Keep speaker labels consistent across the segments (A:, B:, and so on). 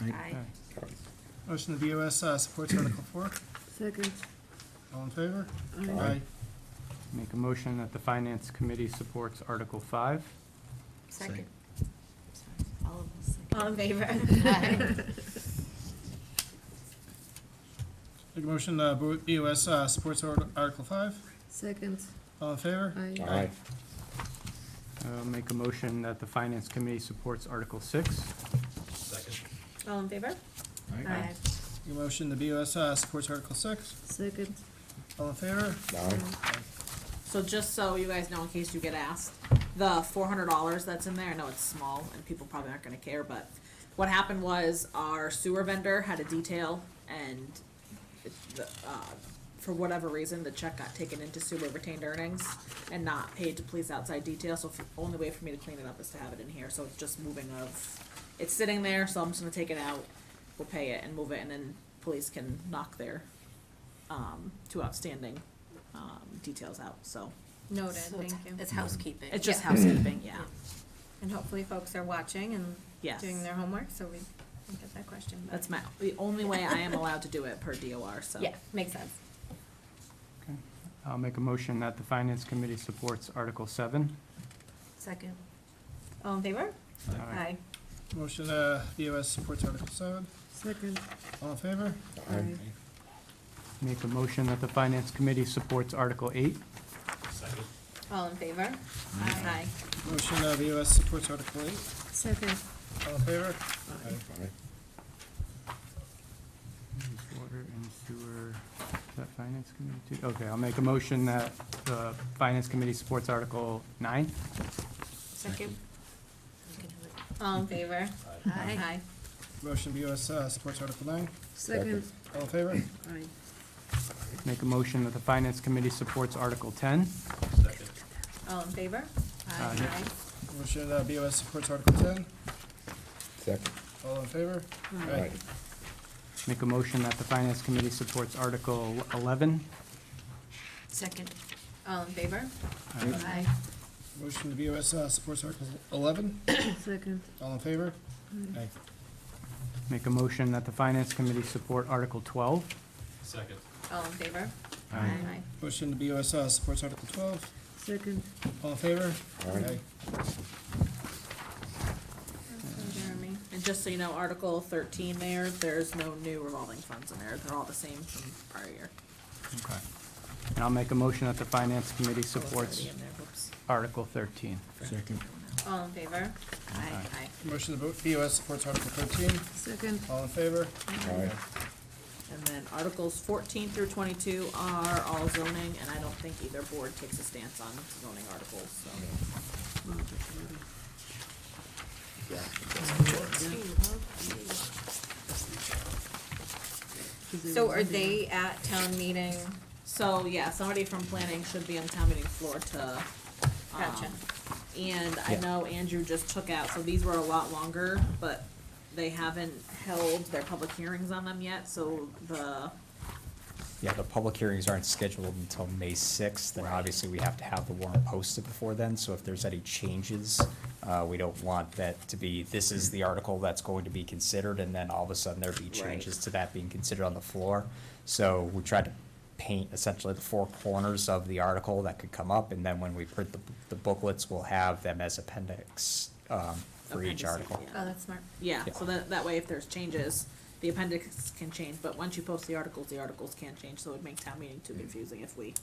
A: Aye.
B: Motion the BOS uh, supports Article Four.
C: Second.
B: All in favor?
D: Aye.
E: Make a motion that the Finance Committee supports Article 5.
A: Second. All of us. second.
C: All in favor?
A: Aye.
B: Make a motion, uh, Bo- BOS uh, supports Ar- Article Five.
C: Second,
B: All in favor?
C: aye.
D: Aye.
E: Uh, Make a motion that the Finance Committee supports Article 6.
C: All in favor?
A: Aye.
B: Make a motion, the BOS uh, supports Article Six.
C: Second.
B: All in favor?
D: Aye.
F: So just so you guys know, in case you get asked, the four hundred dollars that's in there, I know it's small and people probably aren't gonna care, but what happened was our sewer vendor had a detail and it- the, uh, for whatever reason, the check got taken into sewer retained earnings and not paid to police outside detail, so the only way for me to clean it up is to have it in here, so it's just moving of, it's sitting there, so I'm just gonna take it out, we'll pay it and move it, and then police can knock their, um, two outstanding, um, details out, so.
G: Noted,
A: So
G: thank
A: it's-
G: you.
A: It's housekeeping.
F: It's just
A: Yeah.
F: housekeeping, yeah.
G: And hopefully folks are watching and
F: Yes.
G: doing their homework, so we can get that question. but-
F: That's my, the only way I am allowed to do it per DOR, so.
G: Yeah, makes sense.
E: Okay. I'll make a motion that the Finance Committee supports Article 7.
A: Second.
G: All in favor?
E: Aye.
B: Motion, uh, BOS supports Article Seven.
C: Second,
B: All in favor?
C: aye.
E: Make a motion that the Finance Committee supports Article 8.
G: All in favor? Aye.
B: Motion, uh, BOS supports Article Eight.
C: Second,
B: All in favor?
D: Aye.
E: Water and sewer, is that Finance Committee too? Okay, I'll make a motion that the Finance Committee supports Article 9.
G: Second.
A: You can do it.
G: All in favor? Aye.
B: Motion, BOS uh, supports Article Nine.
C: second,
B: All in favor?
C: aye.
E: Make a motion that the Finance Committee supports Article 10.
G: All in favor?
E: Aye.
B: Motion, uh, BOS supports Article Ten.
D: Second.
B: All in favor?
D: Aye.
E: Make a motion that the Finance Committee supports Article 11.
A: Second.
G: All in favor?
A: Aye.
B: Motion, the BOS uh, supports Article Eleven.
C: Second,
B: All in favor? Aye.
E: Make a motion that the Finance Committee support Article 12.
G: All in favor? Aye.
B: Motion, the BOS uh, supports Article Twelve.
C: second,
B: All in favor?
D: Aye.
G: Jeremy.
F: And just so you know, Article thirteen there, there's no new revolving funds in there, they're all the same from prior year.
E: Okay. And I'll make a motion that the Finance Committee supports
F: Already in there, whoops.
E: Article 13.
D: Second.
G: All in favor?
A: Aye.
G: Aye.
B: Motion, the Bo- BOS supports Article thirteen.
C: second,
B: All in favor?
D: Aye.
F: And then Articles fourteen through twenty-two are all zoning, and I don't think either board takes a stance on zoning articles, so.
G: So are they at town meeting?
F: So, yeah, somebody from planning should be on town meeting floor to. um,
G: Gotcha.
F: And I
D: Yeah.
F: know Andrew just took out, so these were a lot longer, but they haven't held their public hearings on them yet, so the,
H: Yeah, the public hearings aren't scheduled until May 6th, and obviously we have to have the warrant posted before then, so if there's any changes, uh, we don't want that to be, this is the article that's going to be considered, and then all of a sudden there be changes to that being considered on the floor. So we tried to paint essentially the four corners of the article that could come up, and then when we print the the booklets, we'll have them as appendix um, for each
F: Appendices,
H: article.
F: yeah.
G: Oh, that's smart.
F: yeah,
H: Yeah.
F: so that, that way if there's changes, the appendix can change, but once you post the articles, the articles can't change, so it would make town meeting too confusing if we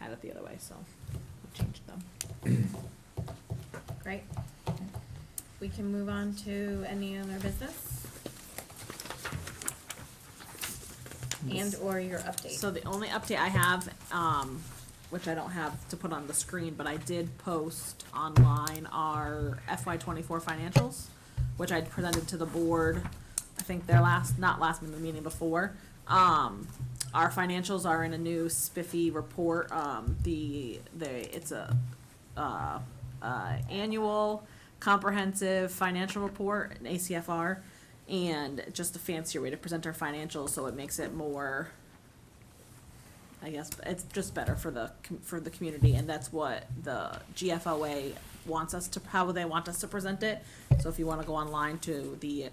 F: had it the other way, so we changed them.
G: Great. We can move on to any other business? And/or your update?
F: So the only update I have, um, which I don't have to put on the screen, but I did post online our FY twenty-four financials, which I presented to the board, I think their last, not last meeting, the meeting before. Um, our financials are in a new spiffy report, um, the, the, it's a, uh, uh, annual comprehensive financial report, an ACFR, and just a fancier way to present our financials, so it makes it more I guess it's just better for the com- for the community, and that's what the GFOA wants us to how they want us to present it. So if you want to go online to the